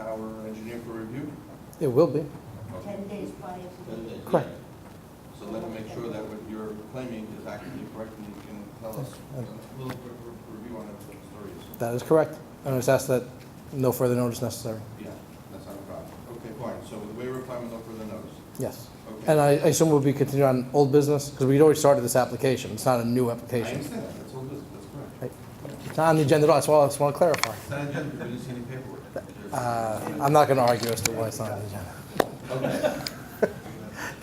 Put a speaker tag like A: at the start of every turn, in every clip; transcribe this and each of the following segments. A: our engineer for review?
B: It will be.
A: Okay.
C: ten days prior to
A: Then
C: the,
A: they-
B: Correct.
A: So let them make sure that what you're claiming is actually correct, and you can tell us uh, a little bit of review on it, what the story is.
B: That is correct. And I just ask that no further notice necessary.
A: Yeah, that's not a problem. Okay, fine, so the waiver requirement, no further notice.
B: Yes.
A: Okay.
B: And I I assume we'll be continuing on old business because we'd already started this application. It's not a new
A: I
B: application.
A: understand, that. that's all business, that's correct.
B: It's not on the agenda at all. That's why I just want to clarify.
A: It's not agenda, we didn't see any paperwork.
B: Uh, I'm not going to argue as to why it's not on the agenda.
A: Okay.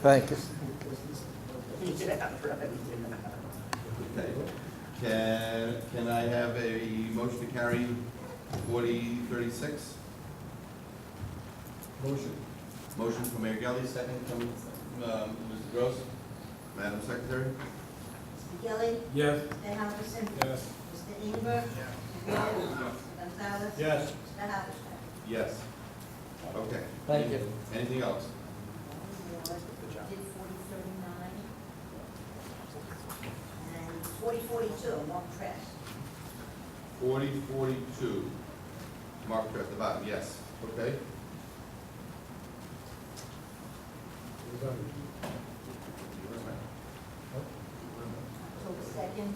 B: Thank you.
A: Okay. Can, can I have a motion to carry forty thirty-six? Motion. Motion from Mayor Gelli, second from, um, Mr. Gross. Madam Secretary?
C: Mr. Gilli,
D: Yes.
C: Mr. Halverson,
D: Yes.
C: Mr. Inger. Mr. Wall, Mr. Gonzalez.
D: Yes.
C: Mr. Halverson.
A: Yes. Okay.
B: Thank you.
A: Anything else?
C: Did forty thirty-nine. And forty forty-two, Mark Trash.
A: Forty forty-two, marked at the bottom, yes, okay?
C: October second,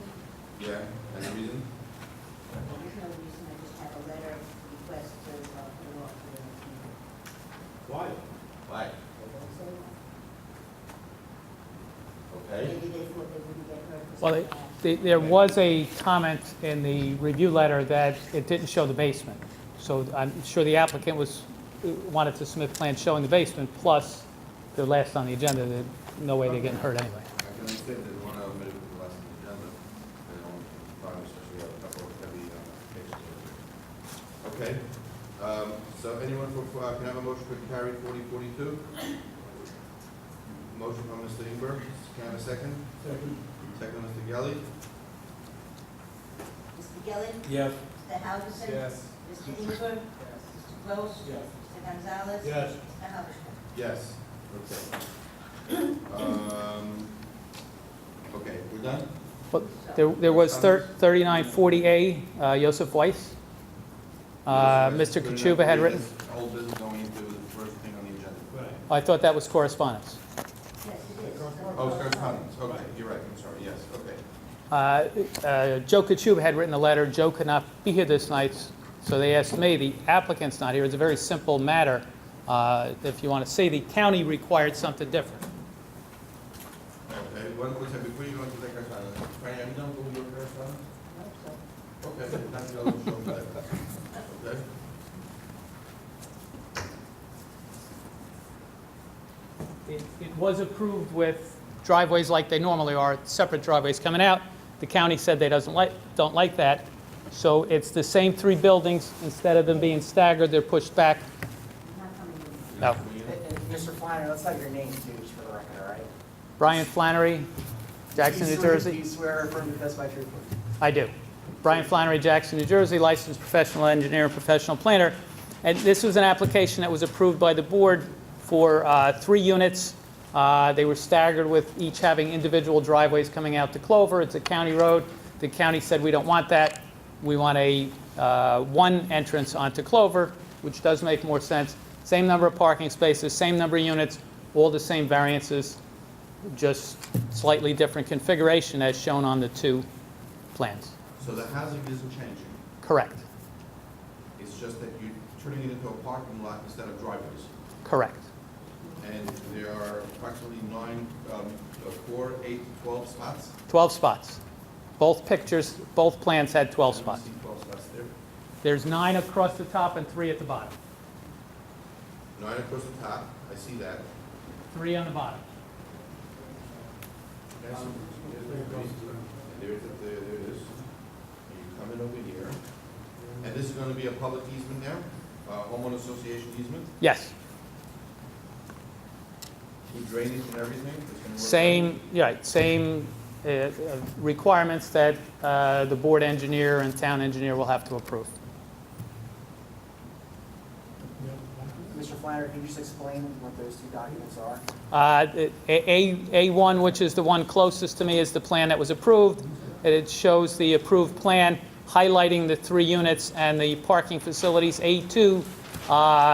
A: Yeah, any reason?
C: there's no reason, I just have a letter request to, uh, put it off for the next meeting.
D: Why?
A: Why? Okay,
C: Maybe they thought they wouldn't get hurt. 'cause
E: Well,
C: of
E: it-
C: that.
E: the- there was a comment in the review letter that it didn't show the basement. So I'm sure the applicant was, wanted to submit plans showing the basement, plus the last on the agenda, that no way they're getting hurt anyway.
A: I can understand that one of them is the last agenda, they don't, probably especially have a couple of heavy uh, cases. Okay, um, so anyone for, uh, can I have a motion to carry forty forty-two? Motion from Mr. Ingber, can I have a second?
D: Second.
A: Second, Mr. Gelli?
C: Mr. Gilli,
D: Yes.
C: Mr. Halverson. Mr. Inger. Mr. Gross.
D: Yes.
C: Mr. Gonzalez.
D: Yes.
C: Mr. Halverson.
A: Yes. Okay. Um, okay, we're done?
E: But there, there was thir- 3940A, uh, Joseph Weiss. Uh, Mr. Kachuba had written,
A: Old business going into the first thing on the agenda.
D: Right.
E: I thought that was correspondence.
C: Yes, it is.
A: Oh, it's correspondence, okay, you're right, I'm sorry, yes, okay.
E: Uh, uh, Joe Kachuba had written a letter, Joe could not be here this night, so they asked me, the applicant's not here, it's a very simple matter. Uh, If you want to say the county required something different.
A: Okay, one question, before you go into the correspondence, Franny, I'm done with your correspondence?
C: Nope, so-
A: Okay, that's the other show back. Okay?
E: It it was approved with driveways like they normally are, separate driveways coming out. The county said they doesn't like, don't like that. So it's the same three buildings, instead of them being staggered, they're pushed back.
C: Not coming in.
E: No.
F: And- and Mr. Uh, Flannery, let's have your names used for the record, all right?
E: Brian Flannery, Jackson,
F: Do you
E: New
F: swear-
E: Jersey.
F: Do you swear or affirm to testify truthfully?
E: I do. Brian Flannery, Jackson, New Jersey, licensed professional engineer and professional planner. And this was an application that was approved by the board for uh, three units. Uh, They were staggered with each having individual driveways coming out to Clover. It's a county road. The county said, "We don't want that. We want a uh, one entrance onto Clover," which does make more sense. Same number of parking spaces, same number of units, all the same variances, just slightly different configuration as shown on the two plans.
A: So the housing isn't changing,
E: Correct,
A: it's just that you're turning it into a parking lot instead of driveways.
E: correct.
A: And there are approximately nine, um, uh, four, eight, twelve spots?
E: 12 spots. Both pictures, both plans
A: I
E: had 12
A: don't
E: spots.
A: see Twelve spots there.
E: There's nine across the top and three at the bottom.
A: Nine across the top, I see that.
E: Three on the bottom.
A: There's there it there it is. You come in over here. And this is gonna be a public easement now, uh, homeowner association easement,
E: Yes,
A: with drainage and everything. It's gonna work.
E: same, yeah, right, same uh, uh, requirements that uh, the board engineer and town engineer will have to approve.
F: Mr. Flannery, can you just explain what those two documents are?
E: Uh, A- A- A1, which is the one closest to me, is the plan that was approved. And It shows the approved plan highlighting the three units and the parking facilities. A2 uh,